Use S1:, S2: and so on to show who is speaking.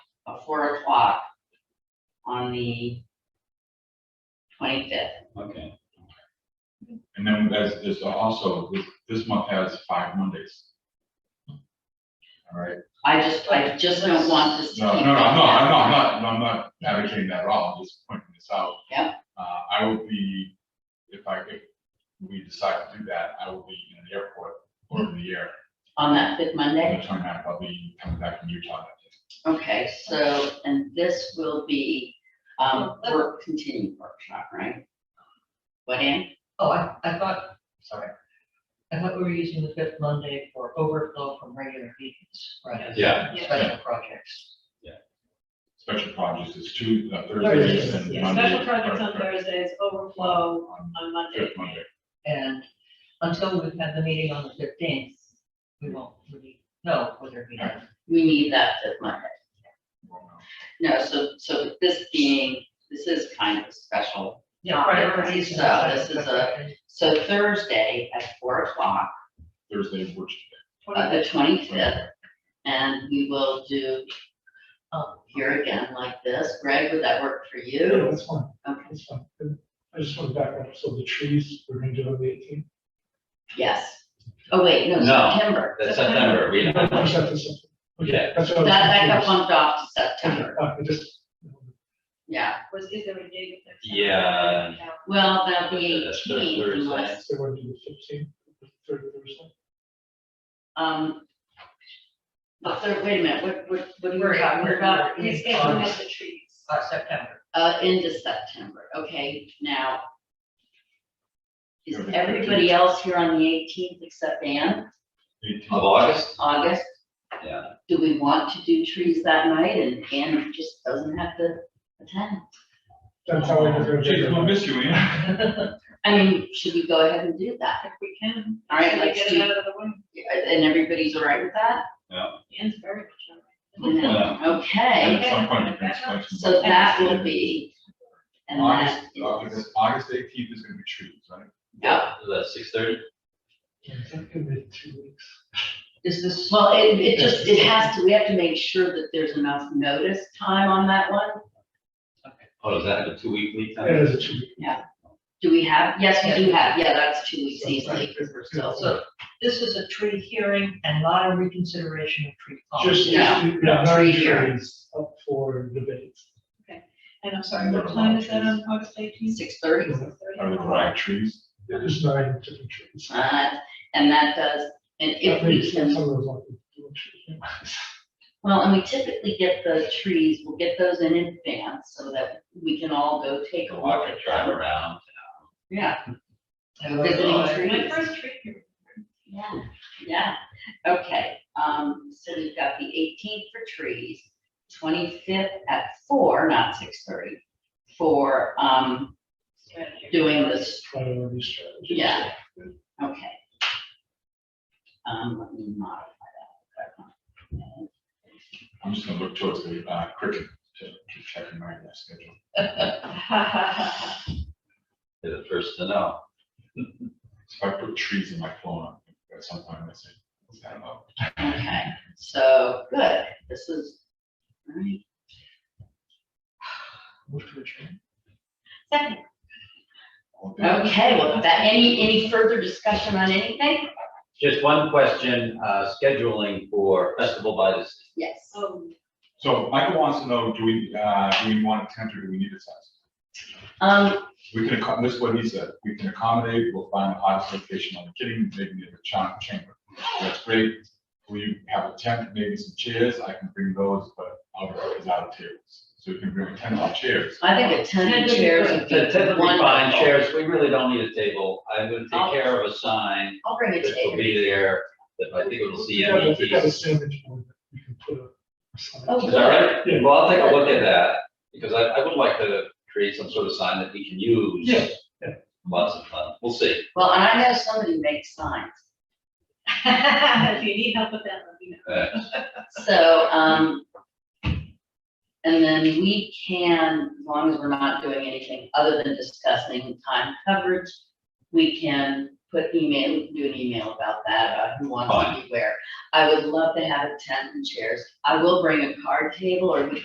S1: four o'clock on the twenty-fifth.
S2: Okay. And then there's, there's also, this, this month has five Mondays. All right,
S1: I just, I just don't want this to keep.
S2: no, no, no, no,
S1: going
S2: I'm
S1: down.
S2: not, I'm not, I'm not advocating that at all, I'm just pointing this out.
S1: Yep.
S2: Uh, I will be, if I, if we decide to do that, I will be in the airport over the air.
S1: On that fifth Monday?
S2: On the 29th, I'll be coming back from Utah that day.
S1: Okay, so, and this will be, um,
S3: Well,
S1: work, continued workshop, right? What, Ann?
S3: Oh, I, I thought, sorry, I thought we were using the fifth Monday for overflow from regular meetings, right?
S4: Yeah,
S3: Special projects.
S2: Special projects is two, uh,
S3: Thursdays,
S2: Thursdays and
S3: yeah.
S2: Mondays.
S5: Special projects on
S2: Thursday,
S5: Thursdays, overflow
S2: on
S5: on Monday.
S2: Fifth Monday.
S3: And until we've had the meeting on the fifteenth, we won't really know whether we have.
S1: We need that fifth Monday.
S2: Well, no.
S1: No, so, so with this being, this is kind of a special.
S3: Yeah, priorities. and
S1: So this is
S3: stuff.
S1: So Thursday at four o'clock,
S2: Thursday is worship
S1: uh, the twenty-fifth,
S2: day.
S1: and we will do
S3: Um,
S1: here again like this. Greg, would that work for
S6: Yeah,
S1: you?
S6: that's fine,
S1: Okay.
S6: that's fine. And I just want to back up, so the trees, we're gonna do on the eighteenth.
S1: Yes. Oh, wait, no,
S4: No.
S1: September.
S4: that's September, we don't. Yeah.
S6: That's
S1: That,
S6: what
S1: that got
S6: I was
S1: bumped off to
S6: confused.
S1: September,
S6: Uh, I just,
S1: yeah.
S5: Was, is there a date? that's-
S4: Yeah.
S1: Well, that'll be
S4: That's the
S1: eighteen
S4: Thursday.
S1: unless,
S6: they want to do the fifteenth, the third Thursday.
S1: um, the third, wait a minute, what, what, what are
S3: We're-
S1: you talking
S3: we're-
S1: about?
S3: we're-
S5: He's taking out the trees.
S3: Uh, September.
S1: Uh, into September, okay, now. Is
S2: Yeah, the
S1: everybody else here on the eighteenth except Anne,
S2: Eighteenth.
S4: uh, Of August?
S1: August?
S4: Yeah.
S1: Do we want to do trees that night and Anne just doesn't have to attend?
S6: That's how I was gonna.
S2: Geez, we'll miss you, Ian.
S1: I mean, should we go ahead and do that?
S5: If we can.
S1: All right,
S5: Should we
S1: let's
S5: Get
S1: do-
S5: it out of the way.
S1: And everybody's all right with that?
S5: Ian's very much on
S1: Okay,
S2: At some point, you can explain some-
S1: so that will be, and that
S2: August,
S1: is,
S2: August- August eighteenth is gonna be trees, right?
S1: Yeah.
S4: The six thirty?
S6: It's gonna be two weeks.
S3: Is this?
S1: well, it, it just, it has to, we have to make sure that there's enough notice time on that one.
S4: Oh, is that a two week lead
S6: It
S4: time?
S6: is a two week.
S1: Do we have, yes, we do have, yeah, that's two weeks easily, because we're still.
S3: So this is a tree hearing and not a reconsideration of tree
S6: Just,
S3: policy.
S1: no,
S6: just, yeah,
S1: no tree
S6: nine
S1: hearing.
S6: trees up for debate.
S5: And I'm sorry, what time is that on August eighteenth?
S1: Six thirty.
S2: Are they the right trees?
S6: There's nine different trees.
S1: Uh, and that does, and if
S6: That
S1: we
S6: makes
S1: can,
S6: sense, some of those are the two trees.
S1: well, and we typically get the trees, we'll get those in advance so that we can all go take a
S4: Walk
S1: walk.
S4: and drive around.
S1: Yeah,
S3: And those
S1: Visiting
S3: are-
S1: tree.
S5: My first tree hearing.
S1: yeah, yeah, okay, um, so we've got the eighteenth for trees, twenty-fifth at four, not six thirty, for, um,
S5: strategy.
S1: doing this
S6: Priority strategy.
S1: Yeah. Okay. Um, let me modify that.
S2: I'm just gonna look towards the, uh, cricket to to check my uh, schedule.
S4: You're the first to know.
S2: So if I put trees in my phone, at some point, I say, I don't know.
S1: Okay, so, good, this is, all right.
S6: Move to a tree.
S1: Second.
S2: Well, then-
S1: Okay, well, that, any, any further discussion on anything?
S4: Just one question, uh, scheduling for Festival by the Sea.
S1: Yes.
S5: Oh,
S2: So Michael wants to know, do we, uh, do we want a tent or do we need a tent?
S1: Um,
S2: We can, accom- this is what he said, we can accommodate, we'll find the hottest location on the kitchen, maybe near the cha- chamber. That's great. We have a tent, maybe some chairs, I can bring those, but I'll is out of tables. So we can bring a tent on chairs.
S1: I think a ton of chairs would be
S4: Typically fine
S1: wonderful.
S4: chairs, we really don't need a table. I'm gonna take care of a sign
S1: I'll bring a
S4: that will
S1: table.
S4: be there, that I think it'll see
S6: We got a- we got a
S4: METs.
S6: sandwich board that we can put up.
S1: Oh,
S4: Is that right?
S6: Yeah.
S4: Well, I'll take a look at that, because I, I would like to create some sort of sign that we can use.
S6: Yeah, yeah.
S4: Lots of fun, we'll see.
S1: Well, and I know somebody makes signs,
S5: If you need help with that, let me know.
S4: Uh,
S1: so, um, and then we can, as long as we're not doing anything other than discussing time coverage, we can put email, we can do an email about that, about who wants to be where. I would love to have a tent and chairs. I will bring a card table or we